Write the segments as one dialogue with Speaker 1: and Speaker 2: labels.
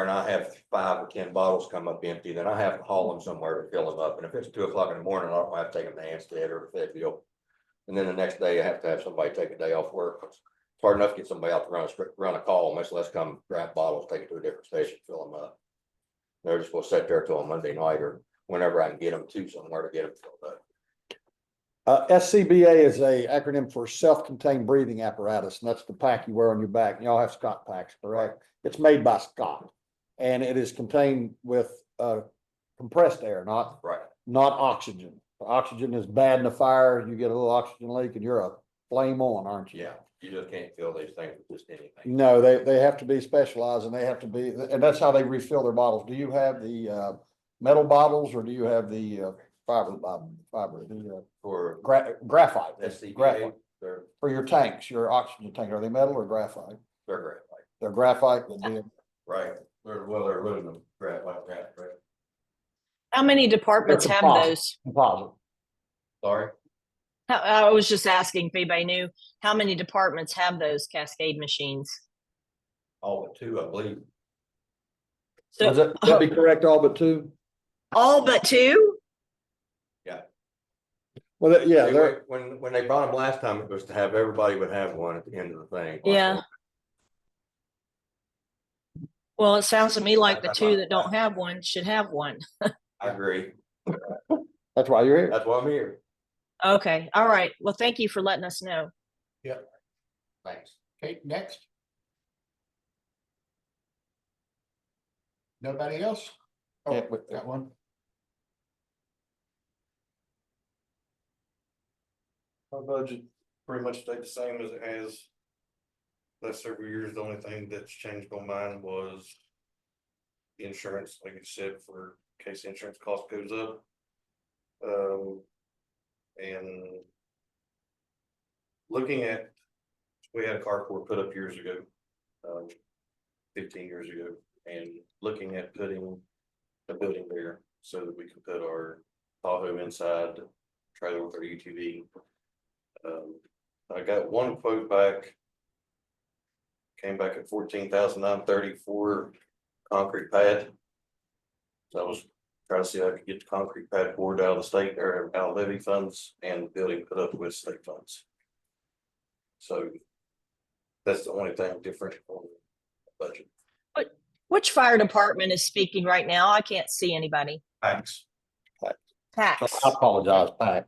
Speaker 1: and I have five or ten bottles come up empty, then I have to haul them somewhere to fill them up. And if it's two o'clock in the morning, I don't have to take them to Anstead or Fayetteville. And then the next day I have to have somebody take a day off work. It's hard enough to get somebody out to run a, str- run a call, much less come grab bottles, take it to a different station, fill them up. They're just gonna sit there till Monday night or whenever I can get them to somewhere to get them filled up.
Speaker 2: Uh, SCBA is a acronym for self-contained breathing apparatus, and that's the pack you wear on your back. Y'all have Scott packs, correct? It's made by Scott, and it is contained with, uh, compressed air, not,
Speaker 1: Right.
Speaker 2: not oxygen. Oxygen is bad in a fire. You get a little oxygen leak and you're a flame on, aren't you?
Speaker 1: Yeah, Mm. you just can't fill these things with just anything.
Speaker 2: No, they, they have to be specialized and they have to be, and that's how they refill their bottles. Do you have the, uh, metal bottles or do you have the, uh, fiber, fiber, the, uh,
Speaker 1: For
Speaker 2: gra- graphite?
Speaker 1: SCBA,
Speaker 2: Graphite.
Speaker 1: they're,
Speaker 2: For your tanks, your oxygen tank, are they metal or graphite?
Speaker 1: they're great, like,
Speaker 2: They're graphite, would be,
Speaker 1: right, they're, well, they're aluminum, right, like that, right?
Speaker 3: How many departments have
Speaker 2: composite.
Speaker 3: those?
Speaker 2: composite.
Speaker 1: Sorry,
Speaker 3: How- I was just asking if anybody knew, how many departments have those cascade machines?
Speaker 1: all but two, I believe.
Speaker 2: Is that, that be correct, all but two?
Speaker 3: All but two?
Speaker 2: Well, that- yeah,
Speaker 1: They
Speaker 2: they're,
Speaker 1: were- When, when they bought them last time, it was to have, everybody would have one at the end of the thing.
Speaker 3: Yeah. Well, it sounds to me like the two that don't have one should have one.
Speaker 1: I agree,
Speaker 2: that's why you're here.
Speaker 1: that's why I'm here,
Speaker 3: Okay, all right. Well, thank you for letting us know.
Speaker 1: thanks.
Speaker 4: Okay, next. Nobody else? Oh,
Speaker 2: Yeah, but-
Speaker 4: Got one?
Speaker 5: My budget pretty much stayed the same as it has. Last several years, the only thing that's changed on mine was. the Insurance, like you said, for in case the insurance cost goes up. Um, and. Looking at, we had a carport put up years ago. Um, fifteen years ago, and looking at putting a building there so that we can put our Tahoe inside, trailer with our UTV. Um, I got one quote back. Came back at fourteen thousand nine thirty-four concrete pad. So I was trying to see if I could get the concrete pad board out of the state or out of levy funds and building put up with state funds. So that's the only thing different on the budget.
Speaker 3: Which fire department is speaking right now? I can't see anybody.
Speaker 5: Thanks.
Speaker 2: I
Speaker 3: Tax.
Speaker 2: apologize, Pat.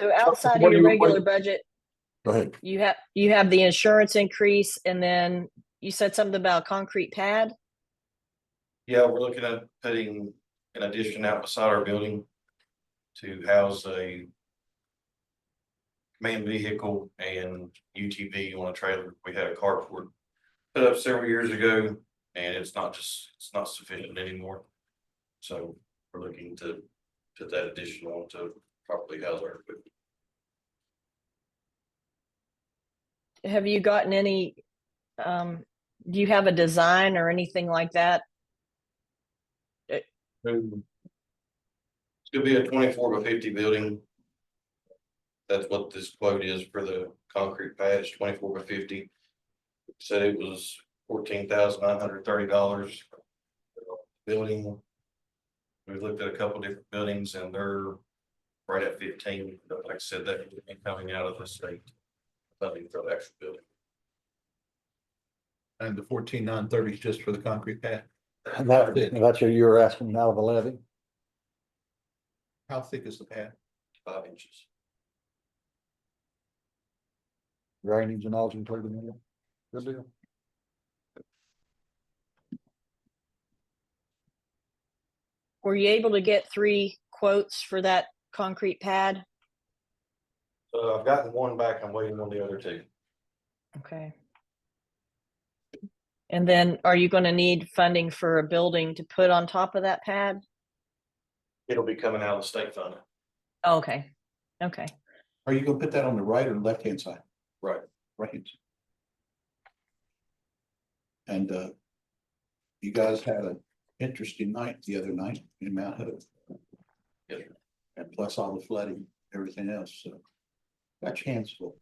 Speaker 3: So outside
Speaker 2: what
Speaker 3: of
Speaker 2: do
Speaker 3: your
Speaker 2: you- what-
Speaker 3: regular budget,
Speaker 2: Go ahead.
Speaker 3: you have, you have the insurance increase and then you said something about a concrete pad?
Speaker 5: Yeah, we're looking at putting an addition out beside our building to house a man vehicle and UTV on a trailer. We had a carport put up several years ago and it's not just, it's not sufficient anymore. So we're looking to put that addition on to properly house our equipment.
Speaker 3: have you gotten any um do you have a design or anything like that
Speaker 5: It's gonna be a twenty-four by fifty building. That's what this quote is for the concrete pads, twenty-four by fifty. Said it was fourteen thousand nine hundred thirty dollars. Building. We looked at a couple different buildings and they're right at fifteen, but like I said, that would be coming out of the state. Funding for the actual building.
Speaker 4: And the fourteen nine thirty is just for the concrete pad.
Speaker 2: And that, that's what you were asking out of the levy.
Speaker 4: How thick is the pad?
Speaker 5: Five inches.
Speaker 2: drainage and all included in it. Good deal.
Speaker 3: were you able to get three quotes for that concrete pad
Speaker 5: So I've gotten one back, I'm waiting on the other two.
Speaker 3: okay and then are you going to need funding for a building to put on top of that pad
Speaker 5: It'll be coming out of the state funding.
Speaker 3: Oh, okay okay
Speaker 4: Are you gonna put that on the right or left hand side?
Speaker 5: Right.
Speaker 4: Right. And uh. You guys had an interesting night the other night in Mount Hope.
Speaker 5: Yes,
Speaker 4: And plus all the flooding, everything else, so. Got your hands full.